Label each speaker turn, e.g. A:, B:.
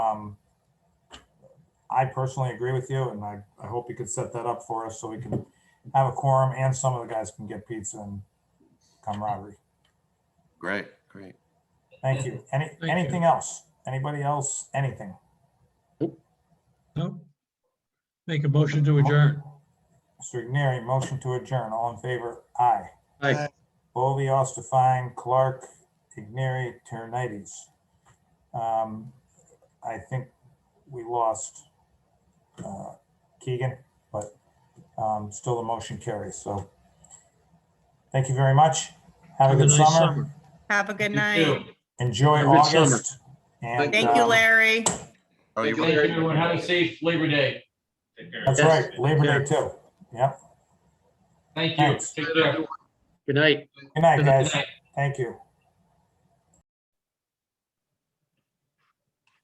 A: Um, I personally agree with you and I, I hope you could set that up for us so we can have a quorum and some of the guys can get pizza and camaraderie.
B: Great, great.
A: Thank you. Any,
C: you.
A: anything else? Anybody else? Anything?
C: No? Make a motion to adjourn.
A: Mr. Igneri, motion to adjourn. All in favor? Aye.
C: Aye.
A: Bovee, Ostafine, Clark, Igneri, Terranites. Um, I think we lost uh, Keegan, but um, still the motion carries, so. Thank you very much. Have a good
C: Have nice
A: summer.
D: Have a good
C: You too.
D: night.
A: Enjoy
C: Have a good summer.
A: August. and,
D: Thank you,
A: um,
D: Larry.
B: Oh, you're
E: Thank
B: right.
E: you, everyone. Have a safe Labor Day. Take care.
A: That's right, Labor Day too. Yep.
E: Thank you.
A: Thanks.
E: Take care.
C: Good night.
A: Good night,
E: Good
A: guys.
E: night.
A: Thank you.